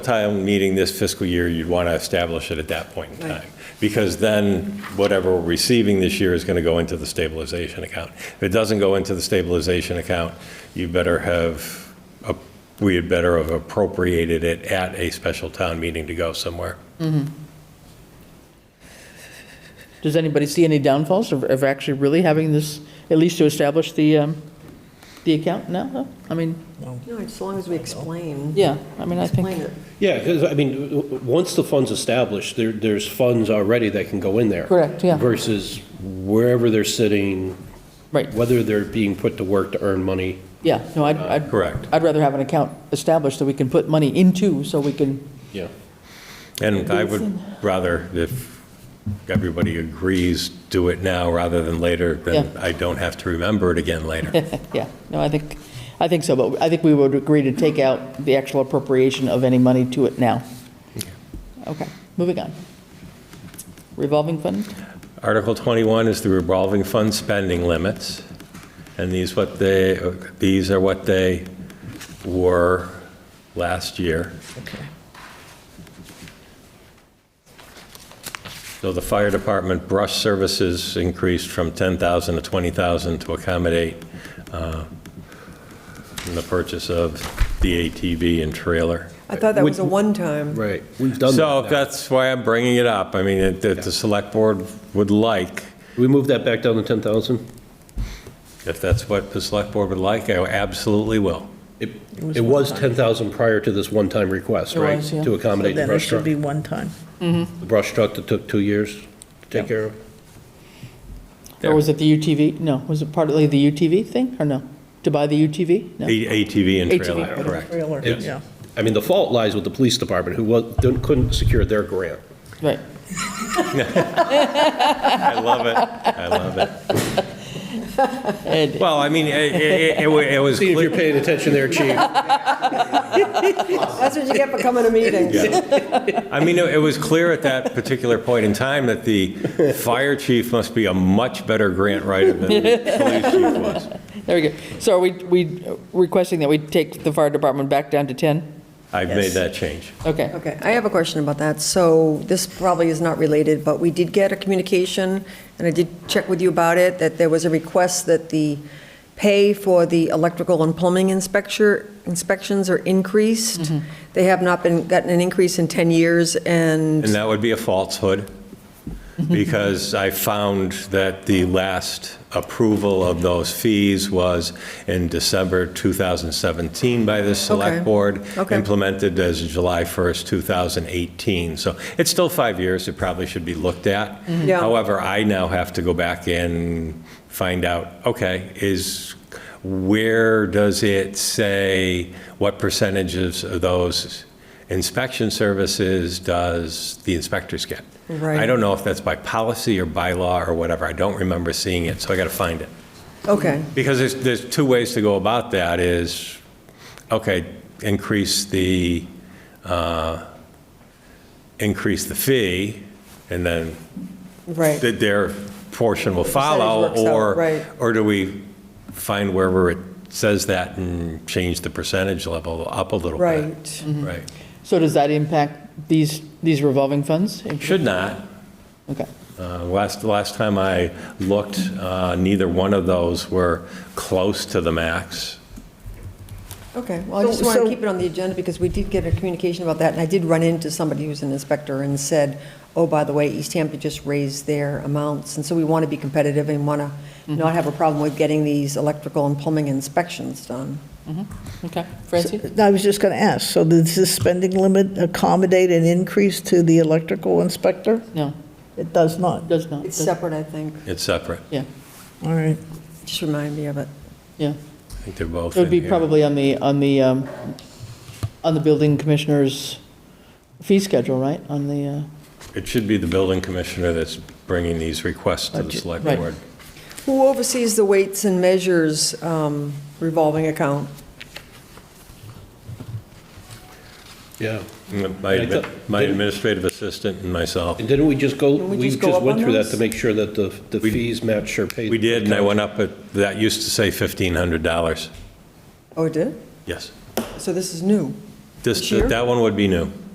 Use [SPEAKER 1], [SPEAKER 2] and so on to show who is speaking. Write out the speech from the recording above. [SPEAKER 1] time meeting this fiscal year, you'd want to establish it at that point in time. Because then whatever we're receiving this year is going to go into the stabilization account. If it doesn't go into the stabilization account, you better have, a- we had better have appropriated it at a special town meeting to go somewhere.
[SPEAKER 2] Does anybody see any downfalls of, of actually really having this, at least to establish the, um, the account now? I mean,
[SPEAKER 3] No, as long as we explain,
[SPEAKER 2] yeah, I mean, I
[SPEAKER 3] explain
[SPEAKER 2] think,
[SPEAKER 3] it.
[SPEAKER 4] Yeah, because, I mean, w- w- once the fund's established, there, there's funds already that can go in there.
[SPEAKER 2] Correct, yeah.
[SPEAKER 4] Versus wherever they're sitting,
[SPEAKER 2] right,
[SPEAKER 4] whether they're being put to work to earn money.
[SPEAKER 2] yeah, no, I'd, I'd.
[SPEAKER 1] Correct.
[SPEAKER 2] I'd rather have an account established that we can put money into, so we can,
[SPEAKER 4] Yeah.
[SPEAKER 1] And I would rather, if everybody agrees, do it now rather than later, then
[SPEAKER 2] Yeah.
[SPEAKER 1] I don't have to remember it again later.
[SPEAKER 2] yeah, no, I think, I think so, but I think we would agree to take out the actual appropriation of any money to it now. Okay, moving on. Revolving fund?
[SPEAKER 1] Article 21 is the revolving fund spending limits, and these what they, these are what they were last year. So the fire department brush services increased from 10,000 to 20,000 to accommodate uh, the purchase of the ATV and trailer.
[SPEAKER 3] I thought that was a one-time.
[SPEAKER 4] Right, we've done
[SPEAKER 1] So
[SPEAKER 4] that.
[SPEAKER 1] that's why I'm bringing it up. I mean, if if the select board would like,
[SPEAKER 4] We moved that back down to 10,000?
[SPEAKER 1] If that's what the select board would like, I absolutely will.
[SPEAKER 4] It, it was 10,000 prior to this one-time request,
[SPEAKER 2] It
[SPEAKER 4] right?
[SPEAKER 2] was, yeah.
[SPEAKER 4] To accommodate the
[SPEAKER 5] Then it
[SPEAKER 4] brush
[SPEAKER 5] should
[SPEAKER 4] truck.
[SPEAKER 5] be one time.
[SPEAKER 4] The brush truck that took two years to take care of.
[SPEAKER 2] Or was it the UTV? No, was it partly the UTV thing, or no? To buy the UTV? No.
[SPEAKER 1] A- ATV and
[SPEAKER 2] ATV,
[SPEAKER 1] trailer,
[SPEAKER 2] okay.
[SPEAKER 1] correct.
[SPEAKER 5] Trailer,
[SPEAKER 4] It's-
[SPEAKER 5] yeah.
[SPEAKER 4] I mean, the fault lies with the police department, who wa- didn't- couldn't secure their grant.
[SPEAKER 2] Right.
[SPEAKER 1] I love it, I love it.
[SPEAKER 2] Ed,
[SPEAKER 1] Well, I mean, it- it it wa- it was,
[SPEAKER 4] See if you're
[SPEAKER 1] cle-
[SPEAKER 4] paying attention there, chief.
[SPEAKER 3] That's what you get for coming to meetings.
[SPEAKER 1] I mean, it was clear at that particular point in time that the fire chief must be a much better grant writer than the police chief was.
[SPEAKER 2] there we go. So are we, we requesting that we take the fire department back down to 10?
[SPEAKER 1] I've made that change.
[SPEAKER 2] Okay,
[SPEAKER 3] Okay, I have a question about that. So this probably is not related, but we did get a communication, and I did check with you about it, that there was a request that the pay for the electrical and plumbing inspector, inspections are increased.
[SPEAKER 2] Mm-hmm.
[SPEAKER 3] They have not been, gotten an increase in 10 years, and
[SPEAKER 1] And that would be a falsehood, because I found that the last approval of those fees was in December 2017 by the Select
[SPEAKER 3] Okay.
[SPEAKER 1] Board,
[SPEAKER 3] Okay.
[SPEAKER 1] implemented as of July 1st, 2018. So it's still five years, it probably should be looked at.
[SPEAKER 3] Yeah.
[SPEAKER 1] However, I now have to go back and find out, okay, is, where does it say what percentages of those inspection services does the inspectors get?
[SPEAKER 3] Right.
[SPEAKER 1] I don't know if that's by policy or bylaw or whatever. I don't remember seeing it, so I got to find it.
[SPEAKER 3] okay,
[SPEAKER 1] Because there's, there's two ways to go about that is, okay, increase the, uh, increase the fee, and then
[SPEAKER 3] right.
[SPEAKER 1] that their portion will follow,
[SPEAKER 3] Percentage works out,
[SPEAKER 1] or,
[SPEAKER 3] right.
[SPEAKER 1] or do we find wherever it says that and change the percentage level up a little bit?
[SPEAKER 3] Right. Mm-hmm.
[SPEAKER 1] Right.
[SPEAKER 2] so does that impact these, these revolving funds?
[SPEAKER 1] Should not.
[SPEAKER 2] Okay,
[SPEAKER 1] Uh, Last, last time I looked, uh, neither one of those were close to the max.
[SPEAKER 3] Okay, well, I just want to keep it on the agenda because we did get a communication about that, and I did run into somebody who's an inspector and said, oh, by the way, East Hampton just raised their amounts, and so we want to be competitive and want to not have a problem with getting these electrical and plumbing inspections done.
[SPEAKER 2] okay. Francie?
[SPEAKER 5] I was just going to ask, so does this spending limit accommodate an increase to the electrical inspector?
[SPEAKER 2] No,
[SPEAKER 5] It does not.
[SPEAKER 2] does not.
[SPEAKER 3] It's
[SPEAKER 2] does-
[SPEAKER 3] separate, I think.
[SPEAKER 1] It's separate.
[SPEAKER 2] Yeah,
[SPEAKER 5] All right.
[SPEAKER 3] Just remind me of it.
[SPEAKER 2] yeah.
[SPEAKER 1] I think they're both
[SPEAKER 2] It would
[SPEAKER 1] in
[SPEAKER 2] be
[SPEAKER 1] here.
[SPEAKER 2] probably on the, on the, um, on the building commissioner's fee schedule, right? On the, uh,
[SPEAKER 1] It should be the building commissioner that's bringing these requests to the select
[SPEAKER 2] right.
[SPEAKER 1] board.
[SPEAKER 3] Who oversees the weights and measures um, revolving account?
[SPEAKER 4] Yeah.
[SPEAKER 1] Mm, My,
[SPEAKER 4] I thought-
[SPEAKER 1] admi- my administrative assistant and myself.
[SPEAKER 4] And didn't we just go,
[SPEAKER 3] we
[SPEAKER 4] we
[SPEAKER 3] just go
[SPEAKER 4] just
[SPEAKER 3] up
[SPEAKER 4] went
[SPEAKER 3] on
[SPEAKER 4] through that
[SPEAKER 3] those?
[SPEAKER 4] to make sure that the, the
[SPEAKER 1] We-
[SPEAKER 4] fees match or paid?
[SPEAKER 1] We did, and I went up, at that used to say $1,500.
[SPEAKER 3] Oh, it did?
[SPEAKER 1] Yes.
[SPEAKER 3] So this is new.
[SPEAKER 1] This, that one would be new.